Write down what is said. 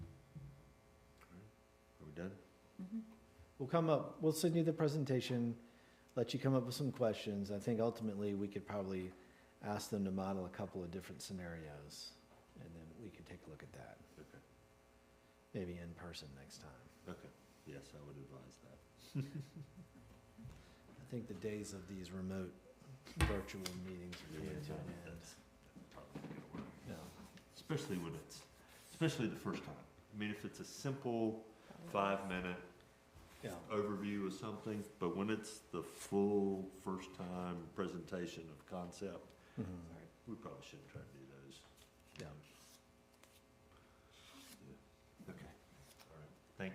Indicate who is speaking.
Speaker 1: done?
Speaker 2: We'll come up, we'll send you the presentation, let you come up with some questions. I think ultimately, we could probably ask them to model a couple of different scenarios, and then we could take a look at that.
Speaker 1: Okay.
Speaker 2: Maybe in person next time.
Speaker 1: Yes, I would advise that.
Speaker 2: I think the days of these remote virtual meetings are coming to an end.
Speaker 1: Probably not gonna work.
Speaker 2: No.
Speaker 1: Especially when it's, especially the first time. I mean, if it's a simple five-minute
Speaker 2: Yeah,
Speaker 1: overview of something, but when it's the full first-time presentation of concept,
Speaker 2: Mhm.
Speaker 1: we probably shouldn't try to do